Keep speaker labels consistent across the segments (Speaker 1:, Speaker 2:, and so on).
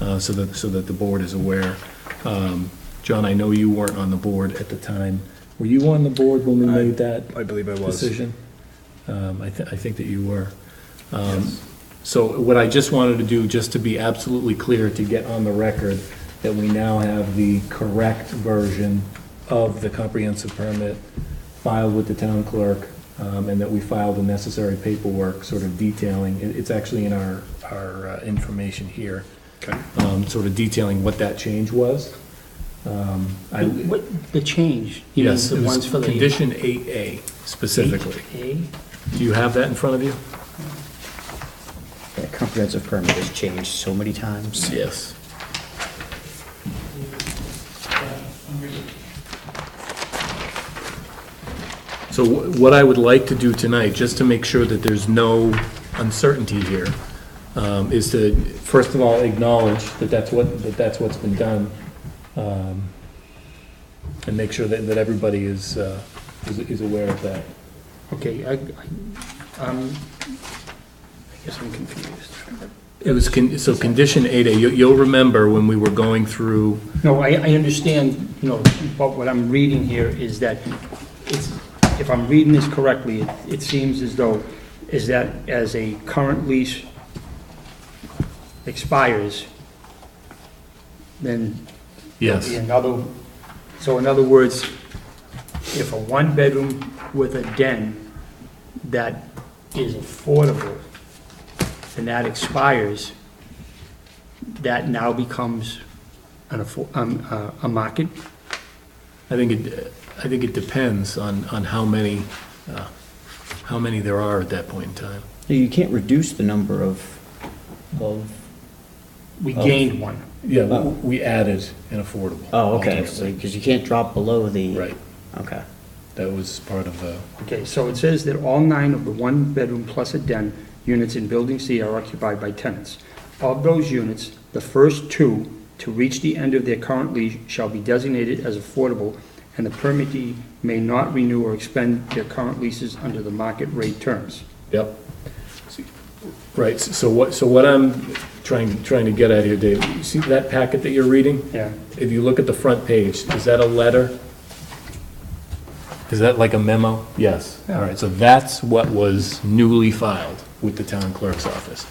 Speaker 1: uh, so that, so that the board is aware. Um, John, I know you weren't on the board at the time. Were you on the board when we
Speaker 2: I
Speaker 1: made that
Speaker 2: I believe I was.
Speaker 1: decision? Um, I, thi- I think that you were. Um, So what I just wanted to do, just to be absolutely clear, to get on the record, that we now have the correct version of the comprehensive permit filed with the town clerk, um, and that we filed the necessary paperwork, sort of detailing, it, it's actually in our, our uh, information here,
Speaker 2: Okay.
Speaker 1: um, sort of detailing what that change was. Um, I-
Speaker 3: The- What, the change? You mean
Speaker 1: Yes,
Speaker 3: the
Speaker 1: it was
Speaker 3: ones for the
Speaker 1: condition eight A specifically.
Speaker 3: A?
Speaker 1: Do you have that in front of you?
Speaker 4: That comprehensive permit has changed so many times.
Speaker 1: Yes. So wh- what I would like to do tonight, just to make sure that there's no uncertainty here, um, is to, first of all, acknowledge that that's what, that that's what's been done, um, and make sure that, that everybody is, uh, is is aware of that.
Speaker 3: Okay, I, I- um, I guess I'm confused.
Speaker 1: It was, con- so condition 8A, you- you'll remember when we were going through,
Speaker 3: No, I, I understand, you know, but what I'm reading here is that it's, if I'm reading this correctly, it, it seems as though, is that as a current lease expires, then
Speaker 1: yes.
Speaker 3: be another, so in other words, if a one-bedroom with a den that is affordable and that expires, that now becomes an affo, um, uh, a market?
Speaker 1: I think it, I think it depends on, on how many, uh, how many there are at that point in time.
Speaker 4: You can't reduce the number of, of,
Speaker 3: We gained one.
Speaker 1: Yeah, we added an affordable.
Speaker 4: oh, okay, because you can't drop below the.
Speaker 1: Right,
Speaker 4: Okay.
Speaker 1: that was part of the,
Speaker 3: Okay, so it says that all nine of the one-bedroom plus a den units in Building C are occupied by tenants. Of those units, the first two to reach the end of their current lease shall be designated as affordable, and the permittee may not renew or expend their current leases under the market rate terms.
Speaker 1: yep. Right, s- so what, so what I'm trying, trying to get at here, Dave, you see that packet that you're reading?
Speaker 3: Yeah.
Speaker 1: If you look at the front page, is that a letter? Is that like a memo? Yes. All right, so that's what was newly filed with the town clerk's office.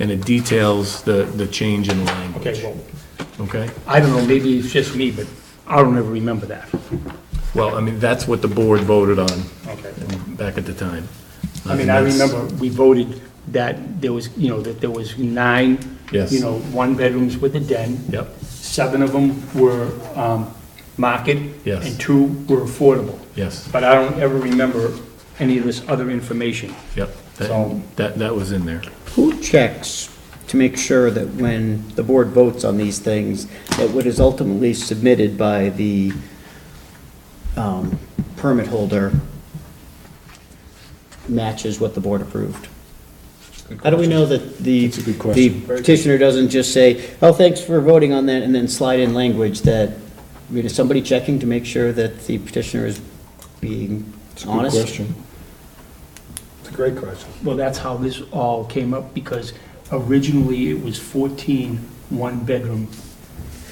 Speaker 1: And it details the, the change in language.
Speaker 3: Okay, well,
Speaker 1: Okay?
Speaker 3: I don't know, maybe it's just me, but I don't ever remember that.
Speaker 1: Well, I mean, that's what the board voted on
Speaker 3: Okay.
Speaker 1: back at the time.
Speaker 3: I mean, I
Speaker 1: And that's-
Speaker 3: remember we voted that there was, you know, that there was nine,
Speaker 1: Yes.
Speaker 3: you know, one-bedrooms with a den,
Speaker 1: Yep,
Speaker 3: Seven of them were um, market.
Speaker 1: Yes.
Speaker 3: And two were affordable.
Speaker 1: yes,
Speaker 3: But I don't ever remember any of this other information.
Speaker 1: yep.
Speaker 3: So-
Speaker 1: That, that- that was in there.
Speaker 4: Who checks to make sure that when the board votes on these things, that what is ultimately submitted by the um, permit holder matches what the board approved? How do we know that the,
Speaker 1: That's a good question.
Speaker 4: the petitioner doesn't just say, oh, thanks for voting on that, and then slide in language that, I mean, is somebody checking to make sure that the petitioner is being honest?
Speaker 2: It's a great question.
Speaker 3: Well, that's how this all came up, because originally it was 14 one-bedroom.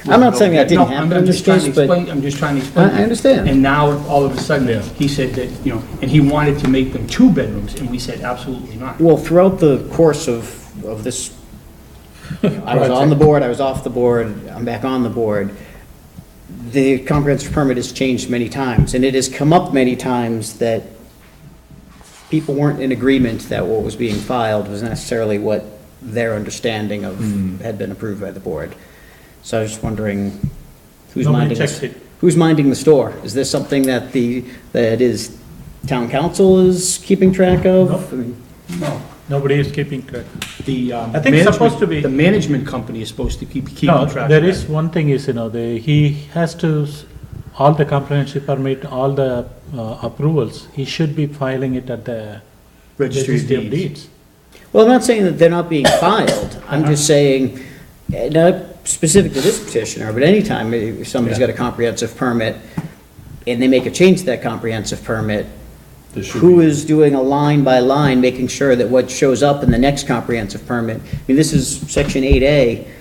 Speaker 4: I'm not saying that didn't
Speaker 3: No,
Speaker 4: happen
Speaker 3: I'm
Speaker 4: in
Speaker 3: just
Speaker 4: this
Speaker 3: trying to
Speaker 4: case, but-
Speaker 3: explain, I'm just trying to explain.
Speaker 4: I- I understand.
Speaker 3: And now, all of a
Speaker 1: Yeah.
Speaker 3: sudden, he said that, you know, and he wanted to make them two bedrooms, and we said absolutely not.
Speaker 4: Well, throughout the course of, of this, I was on the board, I was off the board, I'm back on the board. The comprehensive permit has changed many times, and it has come up many times that people weren't in agreement that what was being filed was necessarily what their understanding of had been approved by the board. So I was just wondering, who's
Speaker 3: Nobody
Speaker 4: minding
Speaker 3: checks
Speaker 4: this?
Speaker 3: it.
Speaker 4: Who's minding the store? Is this something that the, that is, town council is keeping track of? I mean,
Speaker 3: No.
Speaker 5: Nobody is keeping track.
Speaker 3: The um,
Speaker 5: I think it's supposed
Speaker 3: management,
Speaker 5: to be-
Speaker 3: the management company is supposed to keep, keep
Speaker 5: No,
Speaker 3: track of that.
Speaker 5: there is one thing is, you know, the, he has to, s- all the comprehensive permit, all the uh, approvals, he should be filing it at the
Speaker 3: Registry of deeds.
Speaker 4: Well, I'm not saying that they're not being filed, I'm just
Speaker 1: Uh-huh.
Speaker 4: saying, eh, not specific to this petitioner, but anytime eh, somebody's got a comprehensive permit, and they make a change to that comprehensive permit,
Speaker 1: There should
Speaker 4: who
Speaker 1: be-
Speaker 4: is doing a line by line, making sure that what shows up in the next comprehensive permit, I mean, this is section eight A,